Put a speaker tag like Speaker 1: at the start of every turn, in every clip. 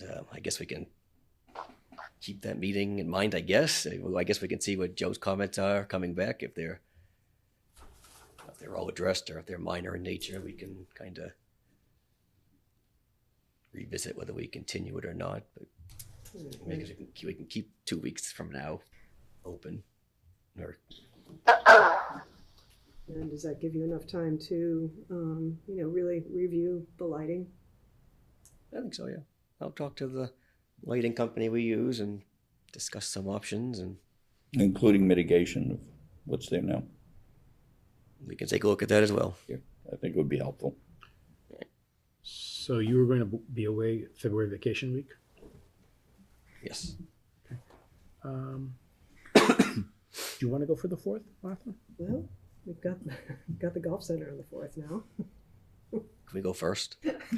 Speaker 1: Uh, I guess we can keep that meeting in mind, I guess. Uh, I guess we can see what Joe's comments are coming back, if they're, if they're all addressed or if they're minor in nature, we can kind of revisit whether we continue it or not, but I guess we can, we can keep two weeks from now open. Or,
Speaker 2: And does that give you enough time to, um, you know, really review the lighting?
Speaker 1: I think so, yeah. I'll talk to the lighting company we use and discuss some options and
Speaker 3: Including mitigation of what's there now.
Speaker 1: we can take a look at that as well.
Speaker 3: Yeah, I think it would be helpful.
Speaker 4: So you were going to be away February vacation week.
Speaker 1: Yes.
Speaker 4: Um, do you want to go for the fourth, Martha?
Speaker 2: Well, we've got, got the golf center on the fourth now.
Speaker 1: Can we go first?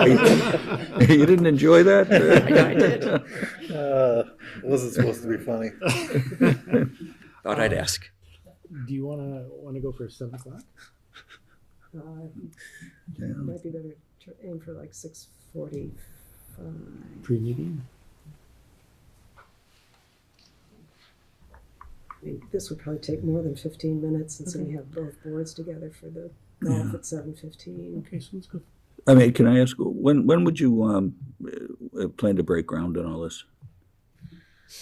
Speaker 3: You didn't enjoy that?
Speaker 1: I did.
Speaker 5: Uh, wasn't supposed to be funny.
Speaker 1: Thought I'd ask.
Speaker 4: Do you want to want to go for seven o'clock?
Speaker 2: Uh, Might be better to aim for like six forty.
Speaker 4: Pre-meeting.
Speaker 2: I mean, this would probably take more than fifteen minutes since we have both boards together for the golf at seven fifteen.
Speaker 4: Okay, so let's go.
Speaker 3: I mean, can I ask, when, when would you, um, uh, plan to break ground on all this?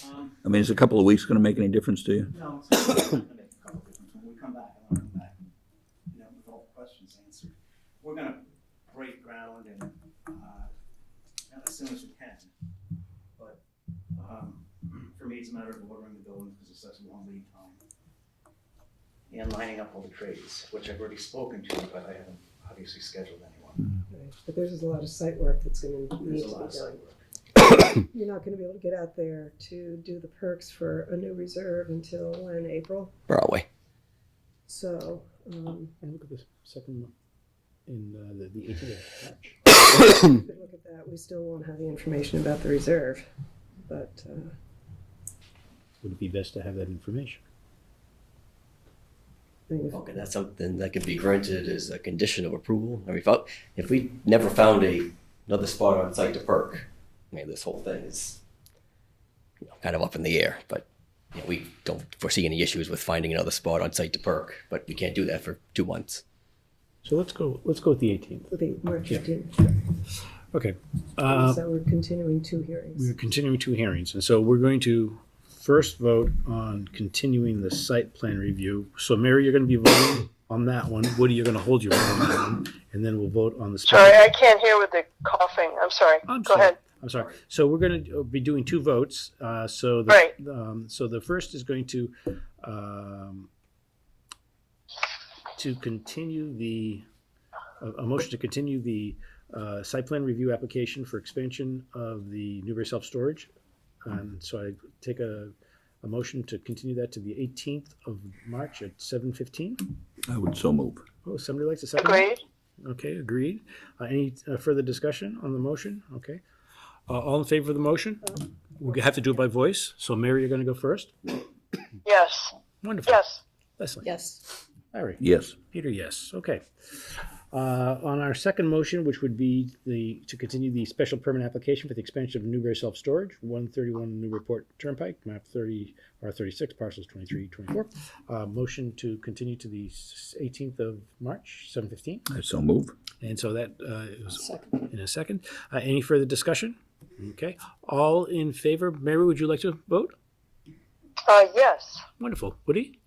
Speaker 6: Um,
Speaker 3: I mean, is a couple of weeks gonna make any difference to you?
Speaker 6: no, it's not gonna make a couple difference. When we come back, I wanna come back, and, you know, with all the questions answered. We're gonna break ground and, uh, not as soon as we can. But, um, for me, it's a matter of ordering the building because it's such a long lead time. And lining up all the trades, which I've already spoken to, but I haven't obviously scheduled anyone.
Speaker 2: But there's a lot of site work that's gonna need
Speaker 6: There's
Speaker 2: to
Speaker 6: a
Speaker 2: be
Speaker 6: lot of
Speaker 2: done.
Speaker 6: site work.
Speaker 2: You're not gonna be able to get out there to do the perks for a new reserve until in April,
Speaker 1: Broadway.
Speaker 2: so, um,
Speaker 4: And look at this second one in uh, the the 18th of March.
Speaker 2: we could look at that. We still won't have the information about the reserve, but, uh,
Speaker 4: Would it be best to have that information?
Speaker 2: I mean, if
Speaker 4: Oh.
Speaker 1: Okay, that's something that could be granted as a condition of approval. I mean, if, I- if we never found a, another spot on site to perk, I mean, this whole thing is you know, kind of up in the air, but you know, we don't foresee any issues with finding another spot on site to perk, but we can't do that for two months.
Speaker 4: So let's go. Let's go with the 18th.
Speaker 2: it'll be March
Speaker 4: Yeah.
Speaker 2: fifteenth,
Speaker 4: Okay. Uh,
Speaker 2: so we're continuing two hearings.
Speaker 4: We're continuing two hearings, and so we're going to first vote on continuing the site plan review. So Mary, you're gonna be voting on that one. Woody, you're gonna hold your vote on that one, and then we'll vote on the. special-
Speaker 7: Sorry, I can't hear with the coughing. I'm sorry.
Speaker 4: I'm
Speaker 7: Go
Speaker 4: sorry.
Speaker 7: ahead.
Speaker 4: I'm sorry. So we're going to be doing two votes. Uh, so the,
Speaker 7: Right.
Speaker 4: um, so the first is going to um, to continue the a, a motion to continue the uh, site plan review application for expansion of the Newbury self storage. Um, so I take a, a motion to continue that to the 18th of March at 7:15.
Speaker 3: I would so move.
Speaker 4: Oh, somebody likes a second. that?
Speaker 7: Agreed.
Speaker 4: Okay, agreed. Uh, any uh, further discussion on the motion? Okay. Uh, all in favor of the motion? We have to do it by voice. So Mary, you're going to go first.
Speaker 7: Yes.
Speaker 4: Wonderful.
Speaker 7: Yes.
Speaker 4: Leslie.
Speaker 2: Yes,
Speaker 4: Larry.
Speaker 3: Yes,
Speaker 4: Peter, yes. Okay. Uh, on our second motion, which would be the to continue the special permit application for the expansion of Newbury Self Storage, 131 Newburyport Turnpike, map 30 or 36, parcels 23, 24. Uh, motion to continue to the 18th of March, 7:15.
Speaker 3: I so move.
Speaker 4: And so that uh, is in a second. Uh, any further discussion? Okay. All in favor? Mary, would you like to vote?
Speaker 7: Uh, yes.
Speaker 4: Wonderful. Woody?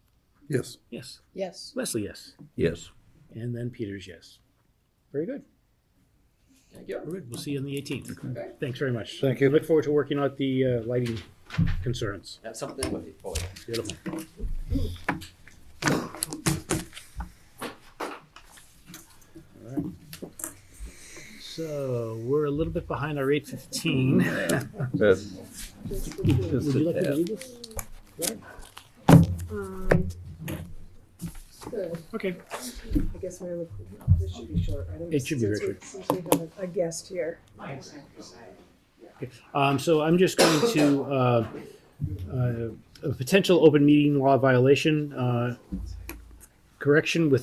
Speaker 5: Yes.
Speaker 4: Yes.
Speaker 2: yes.
Speaker 4: Leslie, yes.
Speaker 3: Yes.
Speaker 4: And then Peter's yes. Very good.
Speaker 1: Thank you.
Speaker 4: Very good. We'll see you on the 18th. Thanks very much.
Speaker 5: Thank you.
Speaker 4: Look forward to working out the uh, lighting concerns.
Speaker 1: That's something with it. Oh, yeah.
Speaker 4: Beautiful. All right. So we're a little bit behind our 8:15. Would you like me to read this?
Speaker 2: Um, so,
Speaker 4: Okay.
Speaker 2: I guess my only, this should be short, right?
Speaker 4: It should be very
Speaker 2: Since we- Since we have a- a guest here.
Speaker 4: Um, so I'm just going to, uh, uh, a potential open meeting law violation, uh, correction with